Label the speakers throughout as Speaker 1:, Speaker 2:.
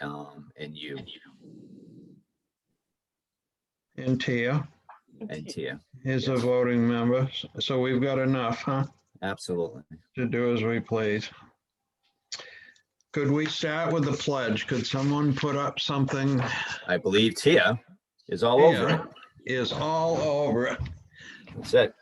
Speaker 1: um, and you
Speaker 2: And Tia
Speaker 1: and Tia.
Speaker 2: is a voting member, S- so we've got enough, huh,
Speaker 1: Absolutely.
Speaker 2: to do as we please. Could we start with the pledge? Could someone put up something
Speaker 1: I believe Tia is all over it.
Speaker 2: Tia is all over it?
Speaker 1: That's it.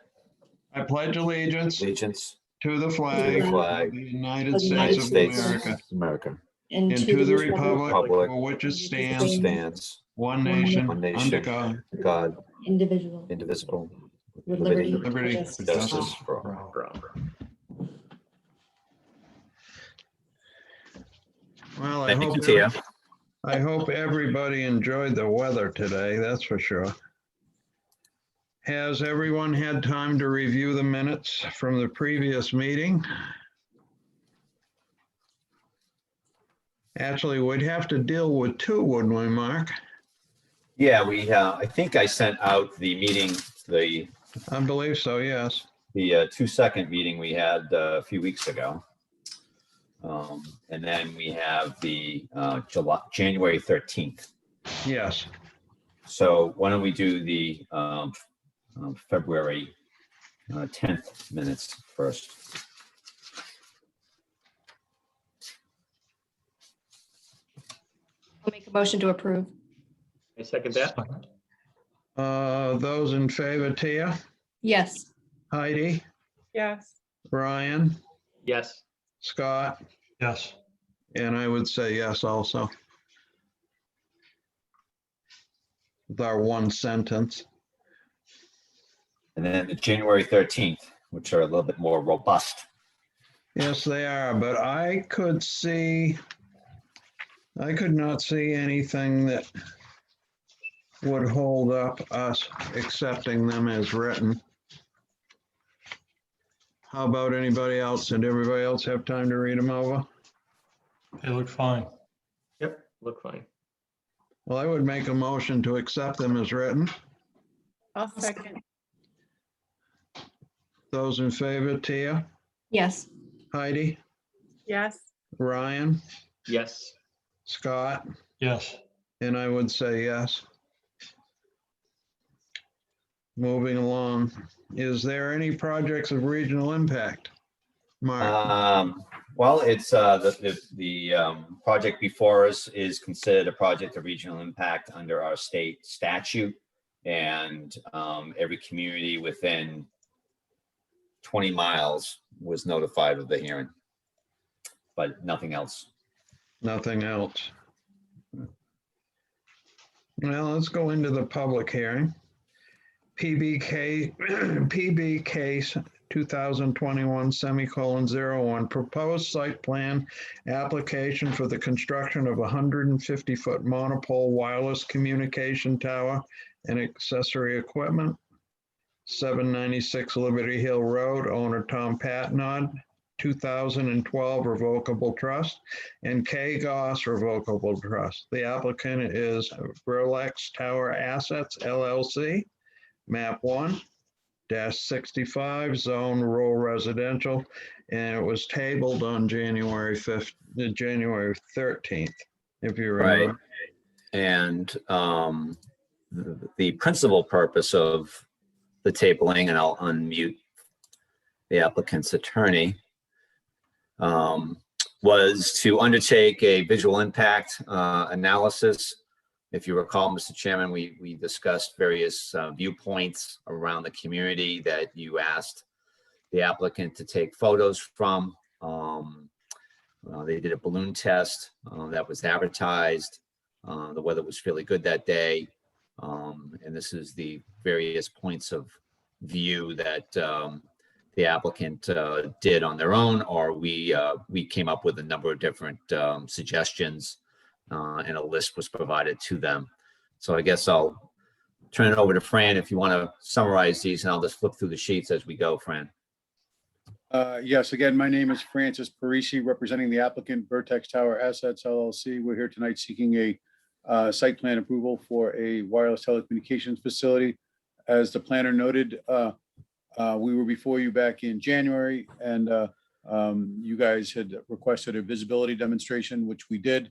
Speaker 2: I pledge allegiance
Speaker 1: Allegiance
Speaker 2: to the
Speaker 1: to
Speaker 2: flag
Speaker 1: the
Speaker 2: of
Speaker 1: flag,
Speaker 2: the
Speaker 1: of
Speaker 2: United
Speaker 3: of the
Speaker 1: the United
Speaker 2: States of
Speaker 1: States,
Speaker 2: America
Speaker 1: of America,
Speaker 3: and
Speaker 2: and to the
Speaker 3: republic
Speaker 2: republic
Speaker 1: Republic
Speaker 2: for which it stands,
Speaker 1: stands,
Speaker 2: one nation,
Speaker 1: One nation.
Speaker 2: under God,
Speaker 1: God,
Speaker 3: Indivisible.
Speaker 1: indivisible,
Speaker 3: With
Speaker 1: with liberty,
Speaker 3: liberty,
Speaker 2: liberty,
Speaker 3: Justice.
Speaker 2: and
Speaker 1: justice
Speaker 2: justice
Speaker 1: for
Speaker 2: for all.
Speaker 1: all.
Speaker 2: Well, I
Speaker 1: Thank you,
Speaker 2: hope,
Speaker 1: Tia.
Speaker 2: I hope everybody enjoyed the weather today, that's for sure. Has everyone had time to review the minutes from the previous meeting? Actually, we'd have to deal with two, wouldn't we, Mark?
Speaker 1: Yeah, we, uh, I think I sent out the meeting, the,
Speaker 2: I believe so, yes.
Speaker 1: the uh, two-second meeting we had uh, a few weeks ago. Um, And then we have the uh, July, January 13th.
Speaker 2: Yes,
Speaker 1: So why don't we do the um, um, February uh, 10th minutes first?
Speaker 3: I'll make a motion to approve.
Speaker 4: I second that.
Speaker 2: Uh, those in favor, Tia,
Speaker 3: Yes.
Speaker 2: Heidi,
Speaker 5: Yes.
Speaker 2: Brian?
Speaker 4: Yes,
Speaker 2: Scott? Yes. And I would say yes also. With our one sentence.
Speaker 1: And then the January 13th, which are a little bit more robust.
Speaker 2: Yes, they are, but I could see, I could not see anything that would hold up us accepting them as written. How about anybody else? Did everybody else have time to read them over?
Speaker 6: They look fine.
Speaker 4: yep, look fine.
Speaker 2: Well, I would make a motion to accept them as written.
Speaker 5: I'll second.
Speaker 2: Those in favor, Tia?
Speaker 3: Yes.
Speaker 2: Heidi,
Speaker 5: Yes.
Speaker 2: Ryan,
Speaker 4: Yes,
Speaker 2: Scott,
Speaker 6: Yes,
Speaker 2: and I would say yes. Moving along, is there any projects of regional impact? Mark,
Speaker 1: Um, well, it's, uh, the, the, the, um, project before us is considered a project of regional impact under our state statute. And, um, every community within twenty miles was notified of the hearing. But nothing else.
Speaker 2: nothing else. Well, let's go into the public hearing. PBK, PB case 2021 semicolon 01, proposed site plan application for the construction of a 150-foot monopole wireless communication tower and accessory equipment. 796 Liberty Hill Road, owner Tom Patnod, 2012 Revocable Trust, and K Goss Revocable Trust. The applicant is Burlex Tower Assets LLC, map one dash sixty-five, zone rural residential, and it was tabled on January fifth, uh, January thirteenth, if you
Speaker 1: Right.
Speaker 2: remember.
Speaker 1: And um, th- the principal purpose of the tabling, and I'll unmute the applicant's attorney, um, was to undertake a visual impact uh, analysis. If you recall, Mr. Chairman, we, we discussed various uh, viewpoints around the community that you asked the applicant to take photos from. Um, uh, They did a balloon test uh, that was advertised. Uh, the weather was fairly good that day. Um, and this is the various points of view that um, the applicant uh, did on their own, or we uh, we came up with a number of different um, suggestions, uh, and a list was provided to them. So I guess I'll turn it over to Fran if you want to summarize these, and I'll just flip through the sheets as we go, Fran.
Speaker 7: Uh, Yes, again, my name is Francis Parisi, representing the applicant Vertex Tower Assets LLC. We're here tonight seeking a uh, site plan approval for a wireless telecommunications facility. As the planner noted, uh, uh, we were before you back in January, and uh, um, you guys had requested a visibility demonstration, which we did.